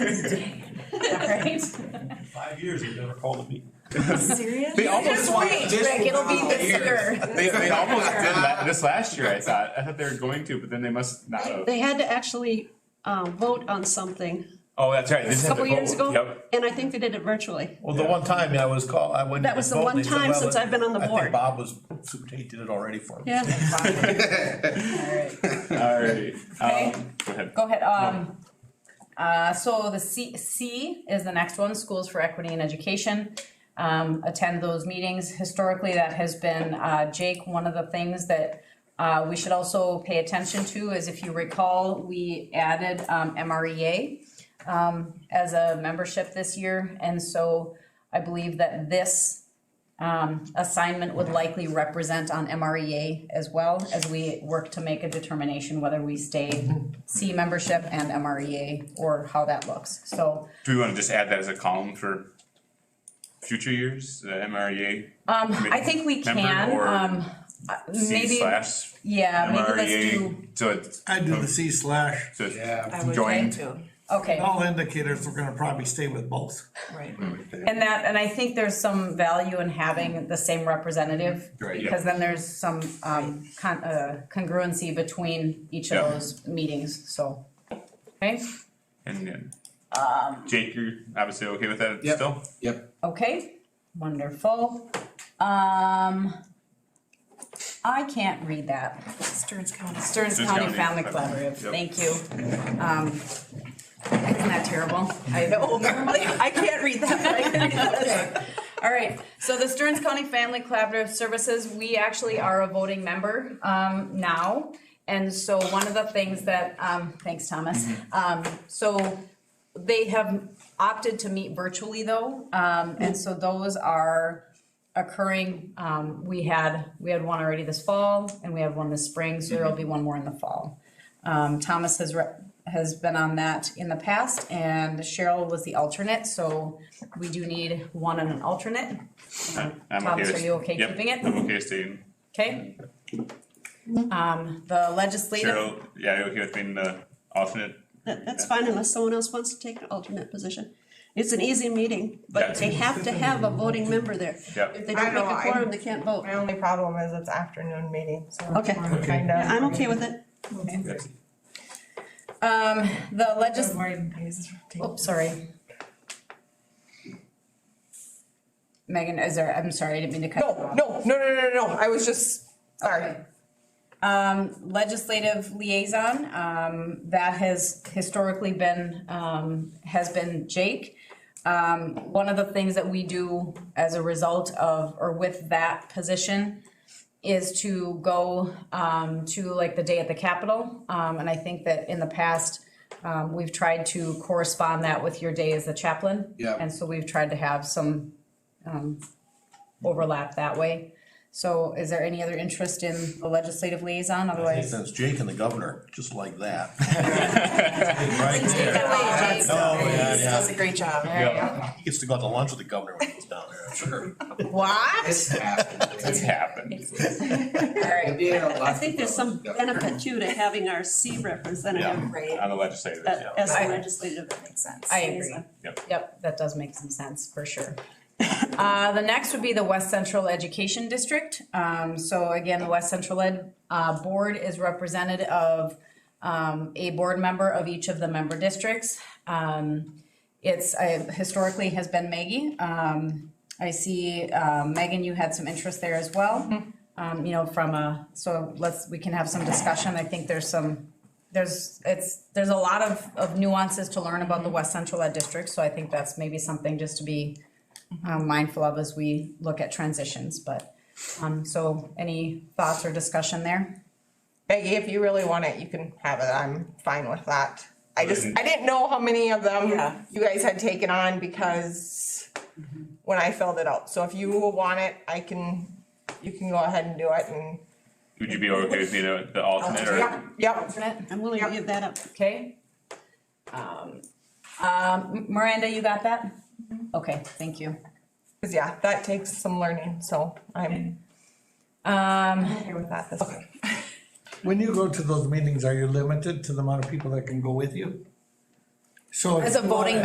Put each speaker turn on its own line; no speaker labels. Five years, they've never called a meeting.
Serious?
They almost
Just
want-
wait,
just
Rick, it'll be
wow.
this year.
They, they almost did that this last year, I thought. I thought they were going to, but then they must not have.
They had to actually uh, vote on something
Oh, that's right. They just
a
have to
couple years
vote.
ago,
Yep.
and I think they did it virtually.
Well, the one time I was called, I went.
That was the one time since I've been on the
I
board."
think Bob was, he did it already for me.
Yeah,
All right.
Okay.
Um, go ahead.
Go ahead, um, uh, so the C, C is the next one, Schools for Equity and Education. Um, attend those meetings. Historically, that has been, uh, Jake, one of the things that, uh, we should also pay attention to is if you recall, we added, um, MREA, um, as a membership this year, and so I believe that this, assignment would likely represent on MREA as well, as we work to make a determination whether we stay C membership and MREA, or how that looks, so.
Do we want to just add that as a column for future years? The MREA
Um, I think we
Member
can,
or
um, uh,
C
maybe,
slash E
yeah, maybe let's do,
MREA. So it's,
I'd do the C slash.
so it's
Yeah,
joined.
okay.
All indicators, we're gonna probably stay with both.
right.
And that, and I think there's some value in having the same representative.
Right, yeah.
Because then there's some, um, con- uh, congruency between each
Yeah.
of those meetings, so. Okay,
And then
Um,
Jake, you're obviously okay with that
Yep.
still?
Yep.
Okay, wonderful. Um, I can't read that.
Stearns County.
Stearns
Stearns
County Family
County.
Collaborative,
Yep.
thank you. Um, isn't that terrible? I know, I can't read that. All right, so the Stearns County Family Collaborative Services, we actually are a voting member, um, now. And so one of the things that, um, thanks, Thomas.
Mm-hmm.
Um, so they have opted to meet virtually though, um, and so those are occurring. Um, we had, we had one already this fall and we had one this spring, so there'll be one more in the fall. Um, Thomas has re- has been on that in the past and Cheryl was the alternate, so we do need one and an alternate.
I'm
Thomas,
okay with-
are you okay
yep,
keeping it?
I'm okay staying.
Okay. Um, the legislative,
Cheryl, yeah, you okay with being the alternate?
that- that's fine unless someone else wants to take an alternate position. It's an easy meeting, but they have to have a voting member there.
Yep.
If they
I
don't make
know,
a
I-
quorum, they can't vote.
My only problem is it's afternoon meeting, so.
Okay.
I'm kinda-
Yeah, I'm okay with it.
Yes.
um, the legis-
Just Morgan Hayes.
Oh, sorry. Megan, is there, I'm sorry, I didn't mean to cut. you
No,
off.
no, no, no, no, no, I was just, sorry.
Um, legislative liaison, um, that has historically been, um, has been Jake. Um, one of the things that we do as a result of, or with that position is to go, um, to like the day at the Capitol. Um, and I think that in the past, um, we've tried to correspond that with your day as the chaplain.
Yeah.
And so we've tried to have some, um, overlap that way. So is there any other interest in the legislative liaison,
I think
otherwise?
that's Jake and the governor, just like that.
Right.
Oh, yeah,
He
yeah.
does a great job.
He gets to go out to lunch with the governor when he's down there, I'm sure.
What?
It's happened.
It's happened.
Alright,
I think there's some benefit too to having our C
Yeah,
representative
on the legislative.
uh,
yeah.
as a legislative.
Makes sense.
I agree.
Yep.
Yep, that does make some sense, for sure. Uh, the next would be the West Central Education District. Um, so again, the West Central Ed, uh, Board is represented of, um, a board member of each of the member districts. Um, it's, uh, historically has been Maggie. Um, I see, uh, Megan, you had some interest there as well. Um, you know, from a, so let's, we can have some discussion. I think there's some there's, it's, there's a lot of, of nuances to learn about the West Central Ed District, so I think that's maybe something just to be um, mindful of as we look at transitions, but, um, so any thoughts or discussion there?
Peggy, if you really want it, you can have it, I'm fine with that. I just,
Mhm.
I didn't know how many of
Yeah.
them you guys had taken on because when I filled it out, so if you want it, I can, you can go ahead and do it and.
Would you be okay with being a- the alternate or?
Yep, Yep,
I'm willing to give that up.
Okay? Um, um, Miranda, you got that? Okay, thank you.
'Cause yeah, that takes some learning, so I'm
Um,
okay with that this time.
When you go to those meetings, are you limited to the amount of people that can go with you? So. if
As a
you wanna-
voting